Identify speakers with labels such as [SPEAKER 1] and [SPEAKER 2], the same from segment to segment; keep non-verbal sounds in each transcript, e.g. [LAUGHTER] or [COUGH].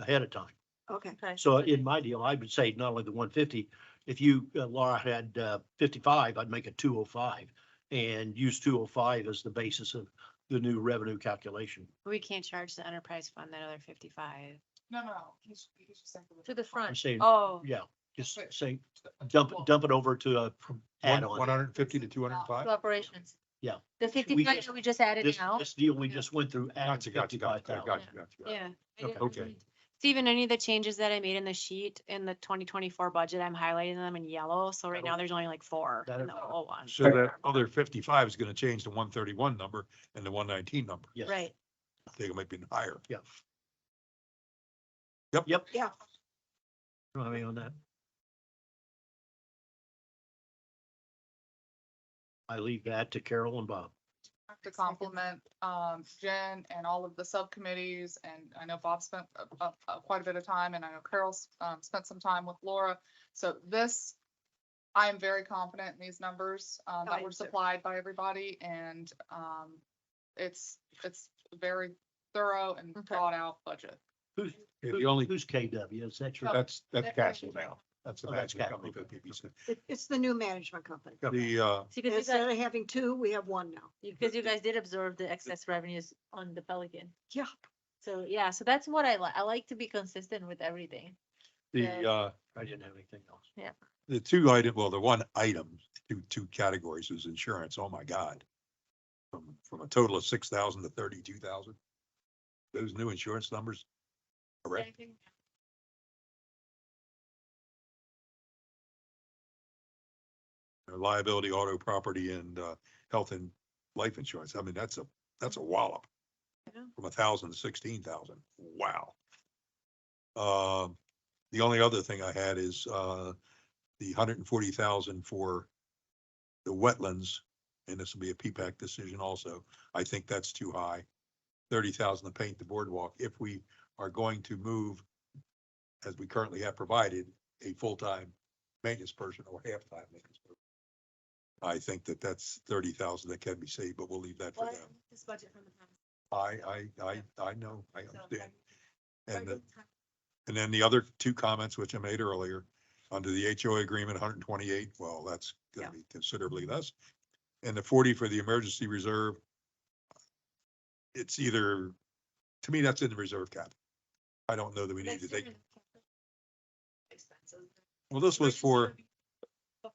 [SPEAKER 1] ahead of time.
[SPEAKER 2] Okay,
[SPEAKER 3] Okay.
[SPEAKER 1] So in my deal, I would say not only the one fifty, if you, uh, Laura had uh, fifty-five, I'd make it two oh five and use two oh five as the basis of the new revenue calculation.
[SPEAKER 4] We can't charge the enterprise fund that other fifty-five.
[SPEAKER 5] No, no, he's, he's just saying.
[SPEAKER 3] To the
[SPEAKER 1] I'm
[SPEAKER 3] front.
[SPEAKER 1] saying,
[SPEAKER 4] Oh,
[SPEAKER 1] yeah, just
[SPEAKER 5] Right.
[SPEAKER 1] say, dump, dump it over to a
[SPEAKER 6] One
[SPEAKER 1] add-on.
[SPEAKER 6] hundred and fifty to two hundred and
[SPEAKER 3] To
[SPEAKER 6] five?
[SPEAKER 3] operations.
[SPEAKER 1] Yeah.
[SPEAKER 3] The fifty-five
[SPEAKER 1] just-
[SPEAKER 3] that we just added
[SPEAKER 1] This,
[SPEAKER 3] now.
[SPEAKER 1] this deal we just went through. added
[SPEAKER 6] Gotcha, gotcha, gotcha, gotcha,
[SPEAKER 1] 55,000.
[SPEAKER 6] gotcha. gotcha.
[SPEAKER 4] yeah. I
[SPEAKER 1] Okay.
[SPEAKER 4] didn't
[SPEAKER 6] Okay.
[SPEAKER 4] really- Steven, any of the changes that I made in the sheet in the twenty twenty-four budget, I'm highlighting them in yellow, so right now
[SPEAKER 1] That'll-
[SPEAKER 4] there's only like four in
[SPEAKER 1] that'll-
[SPEAKER 4] the whole one.
[SPEAKER 6] So that other fifty-five is gonna change the one thirty-one number and the one nineteen number.
[SPEAKER 1] Yes.
[SPEAKER 4] Right,
[SPEAKER 6] I think it might be higher.
[SPEAKER 1] Yeah.
[SPEAKER 6] Yep.
[SPEAKER 1] Yep.
[SPEAKER 2] Yeah.
[SPEAKER 1] I mean, on that. I leave that to Carol and Bob.
[SPEAKER 5] have to compliment um Jen and all of the subcommittees and I know Bob spent uh, uh, uh, quite a bit of time and I know Carol's um spent some time with Laura. So this, I am very confident in these numbers uh,
[SPEAKER 2] I
[SPEAKER 5] that
[SPEAKER 2] am
[SPEAKER 5] were
[SPEAKER 2] too.
[SPEAKER 5] supplied by everybody and um it's, it's very thorough and
[SPEAKER 3] Okay.
[SPEAKER 5] thought out budget.
[SPEAKER 1] Who's,
[SPEAKER 6] Okay,
[SPEAKER 1] who-
[SPEAKER 6] The only, Uh,
[SPEAKER 1] who's KW? Is that your?
[SPEAKER 6] that's, that's
[SPEAKER 5] That's right.
[SPEAKER 6] Castle now. That's the
[SPEAKER 1] Oh, that's
[SPEAKER 6] Castle company
[SPEAKER 1] Castle.
[SPEAKER 6] that PPC.
[SPEAKER 2] it, it's the new management company.
[SPEAKER 6] The, uh,
[SPEAKER 3] See, because you
[SPEAKER 2] Instead
[SPEAKER 3] guys,
[SPEAKER 2] of having two, we have one now.
[SPEAKER 3] because you guys did absorb the excess revenues on the Pelican.
[SPEAKER 2] Yeah.
[SPEAKER 3] So, yeah, so that's what I like. I like to be consistent with everything.
[SPEAKER 6] the,
[SPEAKER 3] Yeah.
[SPEAKER 6] uh,
[SPEAKER 1] I didn't have anything else.
[SPEAKER 6] the two item, well, the one item, two, two categories was insurance. Oh, my God. From, from a total of six thousand to thirty-two thousand. Those new insurance numbers. Correct. uh, liability, auto, property and uh, health and life insurance. I mean, that's a, that's a wallop.
[SPEAKER 2] Yeah.
[SPEAKER 6] From a thousand to sixteen thousand. Wow. Um, the only other thing I had is uh, the hundred and forty thousand for the wetlands, and this will be a P-PAC decision also. I think that's too high. Thirty thousand to paint the boardwalk if we are going to move, as we currently have provided, a full-time maintenance person or half-time maintenance person. I think that that's thirty thousand that can be saved, but we'll leave that for
[SPEAKER 3] Well, I
[SPEAKER 6] them.
[SPEAKER 3] this budget from the past,
[SPEAKER 6] I, I, I, I know, I
[SPEAKER 3] so
[SPEAKER 6] understand.
[SPEAKER 3] I-
[SPEAKER 6] And, the- and then the other two comments which I made earlier, under the HOA agreement, hundred and twenty-eight, well, that's gonna
[SPEAKER 2] Yeah.
[SPEAKER 6] be considerably less. And the forty for the emergency reserve. It's either, to me, that's in the reserve cap. I don't know that we need
[SPEAKER 3] That's
[SPEAKER 6] to take,
[SPEAKER 3] different expenses.
[SPEAKER 6] well, this was for,
[SPEAKER 3] Emergency room.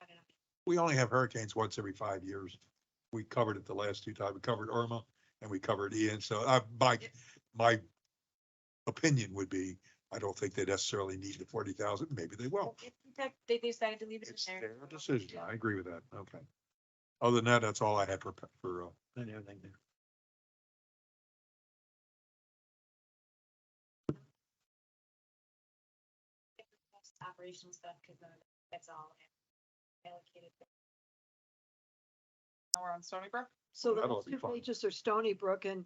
[SPEAKER 3] I don't know.
[SPEAKER 6] we only have hurricanes once every five years. We covered it the last two times. We covered Irma and we covered Ian. So I, my, my opinion would be, I don't think they necessarily need the forty thousand. Maybe they will.
[SPEAKER 3] Well, if in fact They decided to leave it in
[SPEAKER 6] It's
[SPEAKER 3] there.
[SPEAKER 6] their
[SPEAKER 3] so,
[SPEAKER 6] decision.
[SPEAKER 3] yeah.
[SPEAKER 6] I agree with that. Okay. Other than that, that's all I had for, for, uh,
[SPEAKER 1] I didn't have anything there.
[SPEAKER 3] Operational stuff, because that's all. allocated.
[SPEAKER 5] Now we're on Stony Brook.
[SPEAKER 2] So the
[SPEAKER 6] That'll
[SPEAKER 2] last
[SPEAKER 6] be
[SPEAKER 2] two
[SPEAKER 6] fun.
[SPEAKER 2] pages are Stony Brook and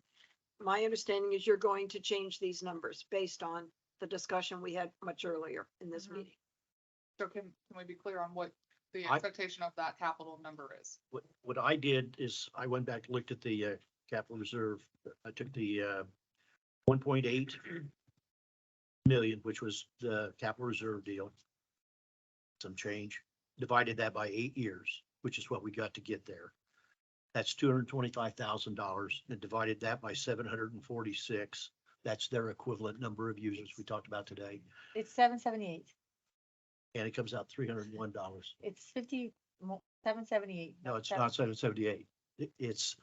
[SPEAKER 2] my understanding is you're going to change these numbers based on the discussion we had much earlier in this
[SPEAKER 3] Mhm.
[SPEAKER 2] meeting.
[SPEAKER 5] So can, can we be clear on what the
[SPEAKER 1] I-
[SPEAKER 5] expectation of that capital number is?
[SPEAKER 1] What, what I did is I went back, looked at the uh, capital reserve. I took the uh, one point eight million, which was the capital reserve deal. Some change, divided that by eight years, which is what we got to get there. That's two hundred twenty-five thousand dollars and divided that by seven hundred and forty-six. That's their equivalent number of users we talked about today.
[SPEAKER 3] It's seven seventy-eight.
[SPEAKER 1] And it comes out three hundred and one dollars.
[SPEAKER 3] It's fifty, seven seventy-eight.
[SPEAKER 1] No, it's not seven seventy-eight. It's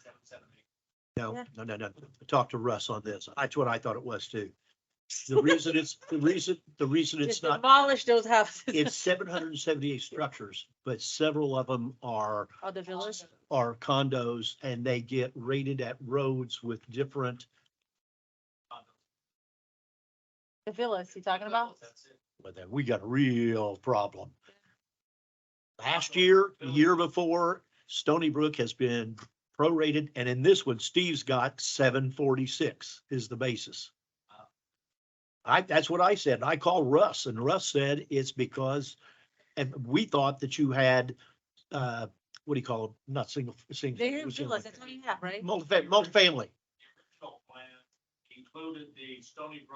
[SPEAKER 1] No,
[SPEAKER 3] Yeah.
[SPEAKER 1] no, no, no. Talk to Russ on this. That's what I thought it was too. The reason it's, the reason, the reason it's
[SPEAKER 3] Just
[SPEAKER 1] not,
[SPEAKER 3] demolish those houses. [LAUGHS]
[SPEAKER 1] it's seven hundred and seventy-eight structures, but several of them are,
[SPEAKER 3] Oh, the villas?
[SPEAKER 1] are condos and they get rated at roads with different,
[SPEAKER 3] The villas you talking about?
[SPEAKER 1] but then we got a real problem. Last year, the year before, Stony Brook has been prorated and in this one, Steve's got seven forty-six is the basis. I, that's what I said. and I called Russ and Russ said it's because, and we thought that you had, uh, what do you call them? Not single, single.
[SPEAKER 3] They're
[SPEAKER 1] what's the other
[SPEAKER 3] villas,
[SPEAKER 1] one?
[SPEAKER 3] that's what you have, right?
[SPEAKER 1] Multifa- multifamily.
[SPEAKER 7] original plan included the Stony Brook